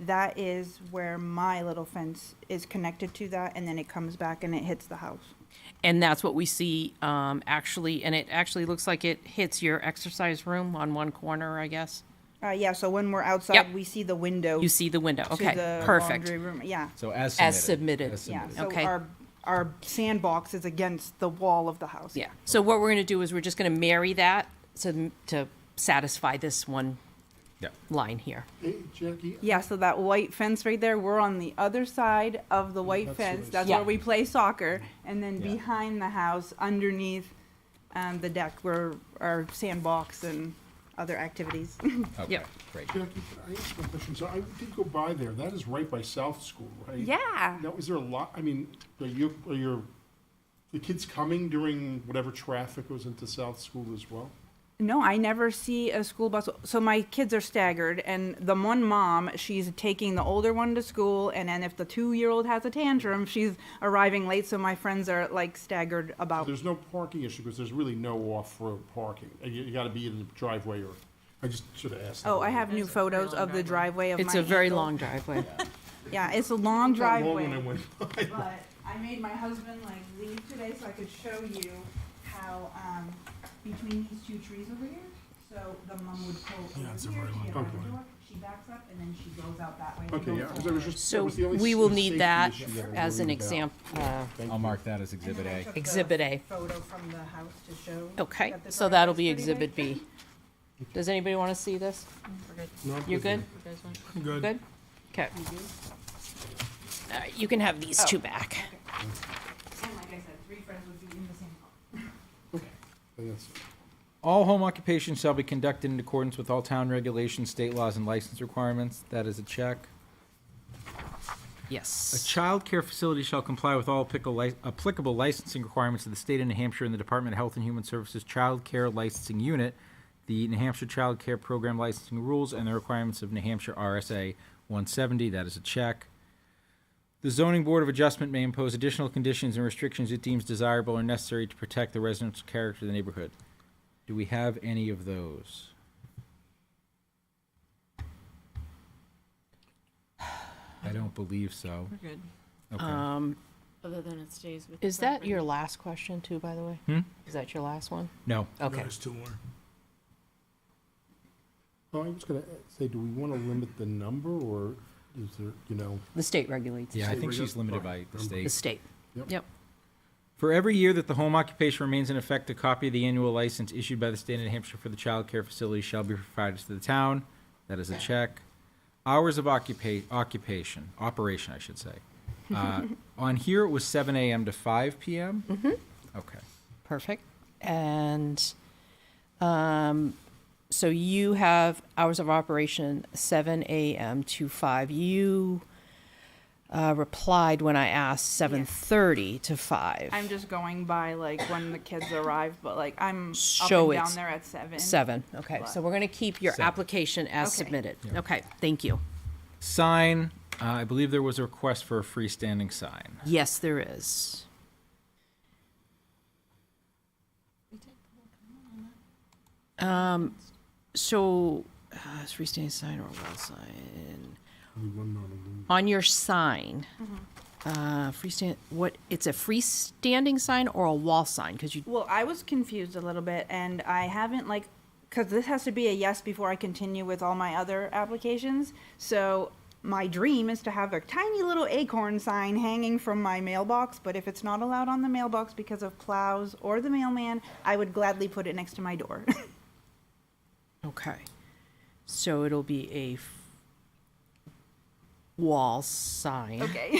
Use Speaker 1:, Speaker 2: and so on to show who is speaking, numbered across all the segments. Speaker 1: that is where my little fence is connected to that, and then it comes back and it hits the house.
Speaker 2: And that's what we see, um, actually, and it actually looks like it hits your exercise room on one corner, I guess.
Speaker 1: Uh, yeah, so when we're
Speaker 2: Yep.
Speaker 1: outside, we see the window.
Speaker 2: You see the window,
Speaker 1: to
Speaker 2: okay,
Speaker 1: the
Speaker 2: perfect.
Speaker 1: laundry room. Yeah,
Speaker 3: So as submitted.
Speaker 2: As submitted.
Speaker 1: yeah. So
Speaker 2: Okay.
Speaker 1: our, our sandbox is against the wall of the house.
Speaker 2: Yeah, so what we're gonna do is we're just gonna marry that to, to satisfy this one
Speaker 3: Yeah.
Speaker 2: line here.
Speaker 4: Hey, Jackie,
Speaker 1: Yeah, so that white fence right there, we're on the other side of the white
Speaker 4: That's
Speaker 1: fence.
Speaker 4: nice.
Speaker 1: That's
Speaker 2: Yeah.
Speaker 1: where we play soccer. And then
Speaker 3: Yeah.
Speaker 1: behind the house, underneath um, the deck, where our sandbox and other activities.
Speaker 3: Okay,
Speaker 2: Yep.
Speaker 3: great.
Speaker 4: Jackie, I ask one question. So I did go by there. That is right by South School, right?
Speaker 1: Yeah.
Speaker 4: Now, is there a lot, I mean, are you, are your, the kids coming during whatever traffic goes into South School as well?
Speaker 1: No, I never see a school bus. So my kids are staggered, and the one mom, she's taking the older one to school, and then if the two-year-old has a tantrum, she's arriving late. So my friends are like staggered about.
Speaker 4: There's no parking issue because there's really no off-road parking. Uh, You, you gotta be in the driveway or, I just should have asked. that
Speaker 1: Oh, I
Speaker 4: earlier.
Speaker 1: have new photos of the driveway of my.
Speaker 2: It's a very
Speaker 1: aunt's old-
Speaker 2: long driveway.
Speaker 1: Yeah, it's a long
Speaker 4: Not long when
Speaker 1: driveway.
Speaker 4: I went by.
Speaker 1: But I made my husband like leave today so I could show you how, um, between these two trees over here, so the mum would pull over
Speaker 4: Yeah, it's a
Speaker 1: here,
Speaker 4: very
Speaker 1: she
Speaker 4: long
Speaker 1: had her
Speaker 4: driveway.
Speaker 1: door, she backs up, and then she goes out that way. and
Speaker 4: Okay,
Speaker 1: goes
Speaker 4: yeah, 'cause I was
Speaker 1: forward.
Speaker 4: just, that
Speaker 2: So
Speaker 4: was the only
Speaker 2: we
Speaker 4: s-
Speaker 2: will need
Speaker 4: safety
Speaker 2: that
Speaker 4: issue I was
Speaker 2: as an
Speaker 4: worried about.
Speaker 2: example. Uh,
Speaker 3: I'll mark that as
Speaker 1: And
Speaker 3: Exhibit
Speaker 1: then I
Speaker 3: A.
Speaker 1: took the
Speaker 2: Exhibit A.
Speaker 1: Photo from the house to show.
Speaker 2: Okay,
Speaker 1: that the
Speaker 2: so that'll
Speaker 1: driveway's
Speaker 2: be
Speaker 1: pretty big.
Speaker 2: Exhibit B. Does anybody wanna see this?
Speaker 4: No, I'm
Speaker 2: You're good?
Speaker 5: Good.
Speaker 2: Good? Okay. All right, you can have these two back.
Speaker 1: And like I said, three friends would be in the same.
Speaker 4: I think that's-
Speaker 3: All home occupations shall be conducted in accordance with all town regulations, state laws, and license requirements. That is a check. A
Speaker 2: Yes.
Speaker 3: child care facility shall comply with all applicable li- applicable licensing requirements of the state of New Hampshire and the Department of Health and Human Services Child Care Licensing Unit, the New Hampshire Child Care Program licensing rules, and the requirements of New Hampshire RSA 170. That is a check. The Zoning Board of Adjustment may impose additional conditions and restrictions it deems desirable or necessary to protect the residential character of the neighborhood. Do we have any of those? I don't believe so.
Speaker 6: We're good.
Speaker 3: Okay.
Speaker 2: Um,
Speaker 6: Other than it stays with. the
Speaker 2: is that your
Speaker 6: property.
Speaker 2: last question too, by the way?
Speaker 3: Hmm?
Speaker 2: Is that your last one?
Speaker 3: No.
Speaker 4: Uh,
Speaker 2: Okay.
Speaker 5: There's two more.
Speaker 4: Oh, I was gonna say, do we want to limit the number, or is there, you know?
Speaker 2: The state regulates.
Speaker 3: Yeah, I
Speaker 4: So
Speaker 3: think
Speaker 4: we're
Speaker 3: she's
Speaker 4: just-
Speaker 3: limited by the
Speaker 2: The
Speaker 3: state.
Speaker 2: state.
Speaker 4: Yep.
Speaker 2: Yep.
Speaker 3: For every year that the home occupation remains in effect, a copy of the annual license issued by the state of New Hampshire for the child care facility shall be provided to the town. That is a check. Hours of occupa- occupation, operation, I should say. Uh, On here, it was seven AM to five PM? Mm-hmm. Okay.
Speaker 2: Perfect. And um, so you have hours of operation 7 a.m. to 5. You uh, replied when I asked 7:30 to 5.
Speaker 1: I'm just going by like when the kids arrive, but like I'm up
Speaker 2: Show
Speaker 1: and
Speaker 2: it's
Speaker 1: down there at seven.
Speaker 2: 7. Okay. So we're going to keep your
Speaker 3: Seven.
Speaker 2: application as
Speaker 1: Okay.
Speaker 2: submitted. Okay. Thank you.
Speaker 3: Sign, uh, I believe there was a request for a freestanding sign.
Speaker 2: Yes, there is. Um, so, uh, it's freestanding sign or wall sign? On your sign, uh, freestand, what, it's a freestanding sign or a wall sign? Cause you,
Speaker 1: Well, I was confused a little bit, and I haven't like, because this has to be a yes before I continue with all my other applications. So my dream is to have a tiny little acorn sign hanging from my mailbox, but if it's not allowed on the mailbox because of plows or the mailman, I would gladly put it next to my door.
Speaker 2: okay. So it'll be a f- wall sign.
Speaker 1: okay.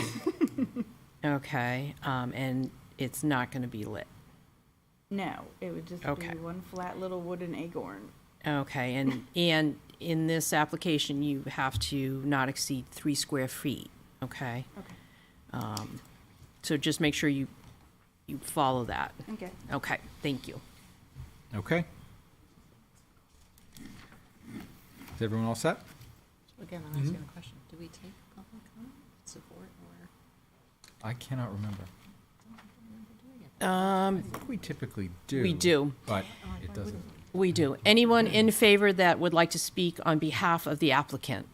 Speaker 2: Okay, um, and it's not gonna be lit.
Speaker 1: no, it would just
Speaker 2: Okay.
Speaker 1: be one flat little wooden acorn.
Speaker 2: Okay, and, and in this application, you have to not exceed three square feet, okay?
Speaker 1: Okay.
Speaker 2: Um, So just make sure you, you follow that.
Speaker 1: Okay.
Speaker 2: Okay, thank you.
Speaker 3: Okay? Is everyone all set?
Speaker 6: Again, I'm asking a question. Do we take public comment, support, or?
Speaker 3: I cannot remember.
Speaker 2: Um,
Speaker 3: I think we typically do.
Speaker 2: We do.
Speaker 3: But it doesn't.
Speaker 2: we do. Anyone in favor that would like to speak on behalf of the applicant?